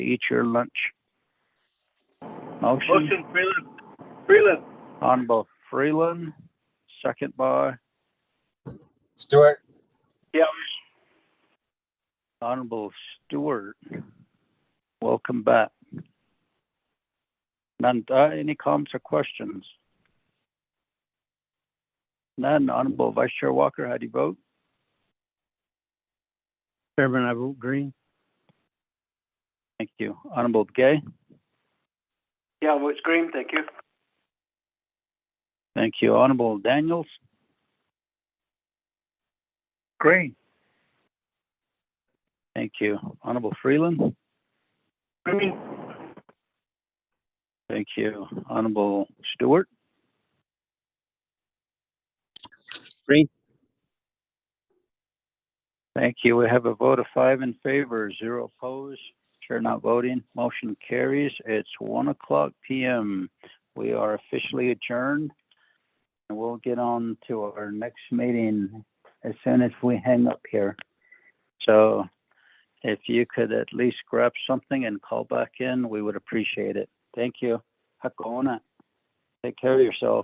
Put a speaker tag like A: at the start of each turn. A: eat your lunch. Motion
B: Motion Freeland, Freeland,
A: Honorable Freeland, second by
C: Stewart,
A: Honorable Stewart. Welcome back. None, uh, any comments or questions? None. Honorable Vice Chair Walker, how do you vote?
D: Chairman, I vote green.
A: Thank you. Honorable Gay?
B: yeah, votes green, thank you.
A: Thank you. Honorable Daniels?
B: Green.
A: Thank you. Honorable Freeland?
B: Green,
A: Thank you. Honorable Stewart?
D: Green.
A: Thank you. We have a vote of five in favor, zero opposed. Chair not voting. Motion carries. It's one o'clock PM. We are officially adjourned. And we'll get on to our next meeting as soon as we hang up here. So if you could at least grab something and call back in, we would appreciate it. Thank you. Hakona. Take care of yourself.